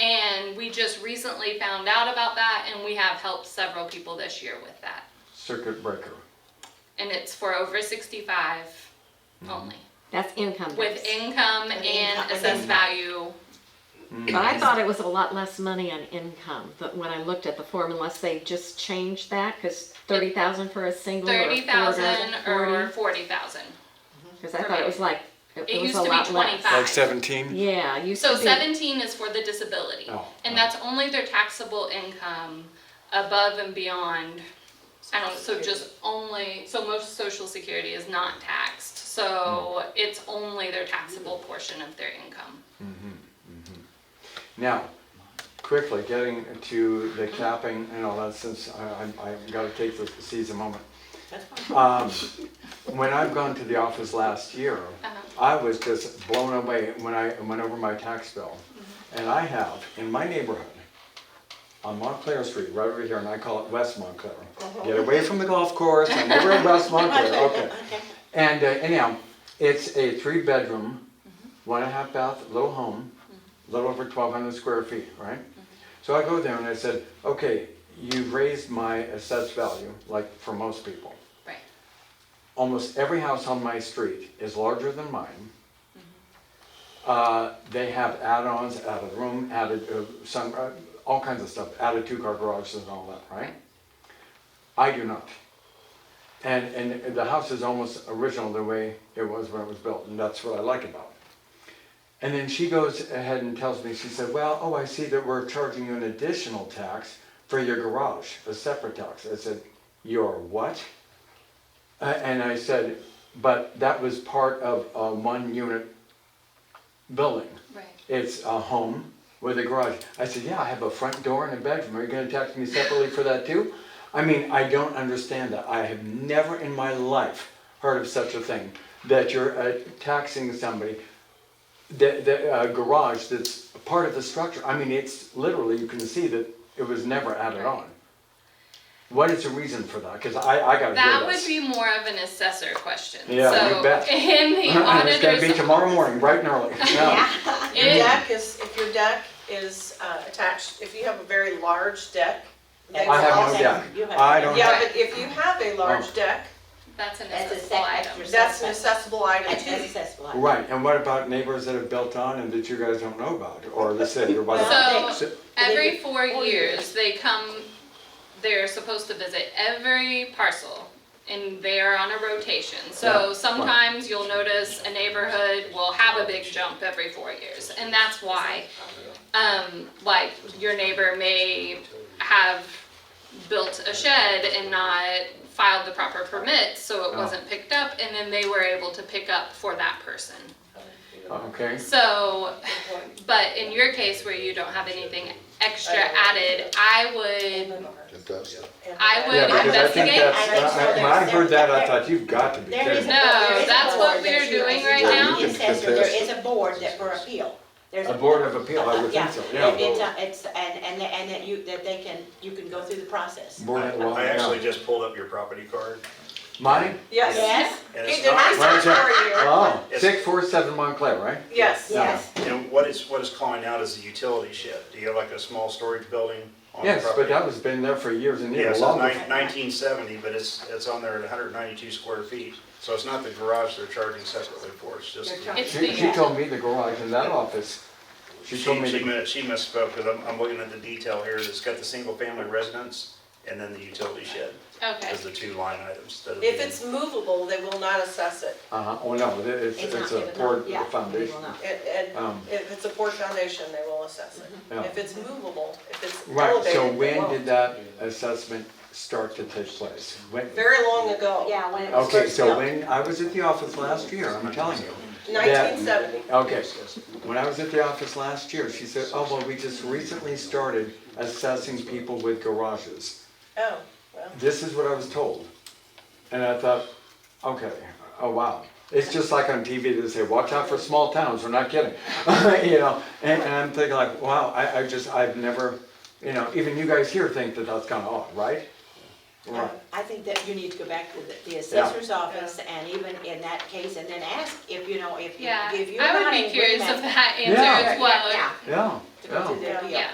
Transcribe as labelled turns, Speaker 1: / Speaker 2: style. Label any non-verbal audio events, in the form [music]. Speaker 1: just recently found out about that and we have helped several people this year with that.
Speaker 2: circuit breaker.
Speaker 1: And it's for over sixty-five
Speaker 2: Mm-hmm.
Speaker 1: only,
Speaker 3: That's income.
Speaker 1: with
Speaker 3: based.
Speaker 1: income
Speaker 3: With
Speaker 1: and
Speaker 3: income.
Speaker 1: assessed value.
Speaker 3: But I thought it was a lot less money on income, but when I looked at the form, unless they just changed that, cause thirty thousand for a single or
Speaker 1: Thirty thousand or forty
Speaker 3: forty.
Speaker 1: thousand.
Speaker 3: Cause I thought it was like,
Speaker 1: It
Speaker 3: it was
Speaker 1: used
Speaker 3: a
Speaker 1: to
Speaker 3: lot
Speaker 1: be
Speaker 3: less.
Speaker 1: twenty-five.
Speaker 2: Like seventeen?
Speaker 3: Yeah, it used to
Speaker 1: So
Speaker 3: be.
Speaker 1: seventeen is for the disability,
Speaker 2: Oh,
Speaker 1: and that's only their taxable income above and beyond. I don't, so just only, so most social security is not taxed, so
Speaker 2: Hmm.
Speaker 1: it's only their taxable portion of their income.
Speaker 2: Now, quickly, getting to the capping and all that, since I, I, I've gotta take this, seize a moment. Um, when I've gone to the office last year, I was just blown away when I went over my tax bill. And I have, in my neighborhood, on Montclair Street, right over here, and I call it West Montclair. Get away from the golf course, I'm over at West Montclair, okay. And uh, anyhow, it's a three-bedroom, one and a half bath, little home, little over twelve hundred square feet, right? So I go there and I said, okay, you've raised my assessed value, like for most people.
Speaker 1: Right,
Speaker 2: Almost every house on my street is larger than mine. Uh, They have add-ons, added room, added uh, some, uh, all kinds of stuff, added two-car garages and all that, right? I do not. And, and the house is almost original the way it was when it was built, and that's what I like about it. And then she goes ahead and tells me, she said, well, oh, I see that we're charging you an additional tax for your garage, a separate tax. I said, your what? Uh, And I said, but that was part of a one-unit building.
Speaker 1: right.
Speaker 2: It's a home with a garage. I said, yeah, I have a front door and a bedroom. Are you gonna tax me separately for that too? I mean, I don't understand that. I have never in my life heard of such a thing, that you're uh, taxing somebody, the, the uh, garage that's part of the structure. I mean, it's literally, you can see that it was never added on. What is the reason for that? Cause I, I gotta
Speaker 1: That
Speaker 2: hear
Speaker 1: would
Speaker 2: this.
Speaker 1: be more of an assessor question.
Speaker 2: Yeah, you
Speaker 1: So,
Speaker 2: bet.
Speaker 1: In
Speaker 2: [laughs]
Speaker 1: the
Speaker 2: [laughs] It's gonna be
Speaker 1: auditor's.
Speaker 2: tomorrow morning, bright and early. Yeah.
Speaker 4: Your
Speaker 1: it-
Speaker 4: deck is, if your deck is uh, attached, if you have a very large deck. that's
Speaker 2: I have
Speaker 4: all-
Speaker 2: no
Speaker 5: Okay.
Speaker 2: deck.
Speaker 5: You have-
Speaker 2: I don't
Speaker 4: Yeah,
Speaker 2: have,
Speaker 4: but if you have a
Speaker 2: Oh.
Speaker 4: large deck,
Speaker 1: That's an
Speaker 5: That's a
Speaker 1: accessible
Speaker 5: sec-
Speaker 1: item.
Speaker 5: extra-
Speaker 4: that's an accessible item
Speaker 5: That's
Speaker 4: too.
Speaker 5: accessible.
Speaker 2: right, and what about neighbors that have built on and that you guys don't know about, or the city,
Speaker 1: So-
Speaker 2: or whatever? So-
Speaker 1: Every four
Speaker 5: Four
Speaker 1: years, they come, they're supposed to visit every parcel and they are on a rotation.
Speaker 2: Yeah,
Speaker 1: So
Speaker 2: right.
Speaker 1: sometimes you'll notice a neighborhood will have a big jump every four years and that's why. Um, like your neighbor may have built a shed and not filed the proper permit, so it
Speaker 2: Oh.
Speaker 1: wasn't picked up and then they were able to pick up for that person.
Speaker 2: Okay,
Speaker 1: So, but in your case where you don't have anything extra added, I would, I
Speaker 2: yeah,
Speaker 1: would
Speaker 2: because I think
Speaker 1: investigate.
Speaker 2: that's,
Speaker 5: I-
Speaker 2: I- when I heard that, I thought, you've got to be
Speaker 5: There is
Speaker 2: kidding. me."
Speaker 5: a
Speaker 1: No,
Speaker 5: there is a
Speaker 1: that's what
Speaker 5: board
Speaker 1: we're
Speaker 5: that you-
Speaker 1: doing right
Speaker 5: you're
Speaker 1: now.
Speaker 5: the assessor. There is a board that for appeal. There's
Speaker 2: A board of appeal, I would
Speaker 5: Yeah.
Speaker 2: think so, yeah.
Speaker 5: It's, a- it's, and, and, and that you, that they can, you can go through the process.
Speaker 2: Board of- well,
Speaker 6: I
Speaker 2: yeah.
Speaker 6: actually just pulled up your property card,
Speaker 2: Mine?
Speaker 4: Yes.
Speaker 5: Yes,
Speaker 6: and
Speaker 4: He
Speaker 6: it's
Speaker 4: did
Speaker 6: not,
Speaker 4: research
Speaker 2: Where's
Speaker 4: for
Speaker 2: that?
Speaker 4: you.
Speaker 2: Oh,
Speaker 6: It's-
Speaker 2: six four seven Montclair, right?
Speaker 4: Yes.
Speaker 5: yes.
Speaker 6: and what is, what is calling out is the utility shed. Do you have like a small storage building on the
Speaker 2: Yes, but
Speaker 6: property?
Speaker 2: that was been there for years and
Speaker 6: Yeah,
Speaker 2: years,
Speaker 6: so
Speaker 2: long
Speaker 6: it's
Speaker 2: before.
Speaker 6: nineteen seventy, but it's, it's on there at hundred ninety-two square feet. So it's not the garage they're charging separately for, it's just.
Speaker 5: They're
Speaker 1: It's
Speaker 2: She, she
Speaker 1: the,
Speaker 2: told me the garage in that office,
Speaker 6: She,
Speaker 2: she
Speaker 6: she
Speaker 2: told me. to-
Speaker 6: mi- she misspoke, because I'm, I'm looking at the detail here, it's got the single-family residence and then the utility shed
Speaker 1: okay,
Speaker 6: as the two line items. that are
Speaker 4: If
Speaker 6: being-
Speaker 4: it's movable, they will not assess it.
Speaker 2: Uh-huh, oh no, it- it's,
Speaker 5: It's not
Speaker 2: it's a
Speaker 5: given up.
Speaker 2: poured
Speaker 5: Yeah,
Speaker 2: foundation.
Speaker 5: we will not.
Speaker 4: It- it-
Speaker 2: Um.
Speaker 4: If it's a poor foundation, they will assess it.
Speaker 2: Yeah.
Speaker 4: If it's movable, if it's
Speaker 2: Right,
Speaker 4: elevated,
Speaker 2: so
Speaker 4: they
Speaker 2: when did
Speaker 4: won't.
Speaker 2: that assessment start to take place? When?
Speaker 4: Very long ago.
Speaker 5: Yeah, when it was
Speaker 2: Okay,
Speaker 5: first built.
Speaker 2: so when, I was at the office last year, I'm telling you. that-
Speaker 4: 1970.
Speaker 2: Okay, when I was at the office last year, she said, oh, well, we just recently started assessing people with garages.
Speaker 4: Oh, well.
Speaker 2: This is what I was told. And I thought, okay, oh wow. It's just like on TV, they say, watch out for small towns, we're not kidding. [laughs] you know, and, and I'm thinking like, wow, I, I just, I've never, you know, even you guys here think that that's kind of odd, right? Right.
Speaker 5: um, I think that you need to go back to the- the assessor's office and even in that case, and then ask if, you know, if you,
Speaker 1: yeah,
Speaker 5: if you're
Speaker 1: I
Speaker 5: not
Speaker 1: would
Speaker 5: in
Speaker 1: be curious of
Speaker 5: agreement.
Speaker 1: that answer
Speaker 2: Yeah.
Speaker 1: as well.
Speaker 5: Yeah,
Speaker 2: Yeah,
Speaker 5: to go
Speaker 2: yeah. Oh.
Speaker 5: through the appeal.
Speaker 1: Yeah,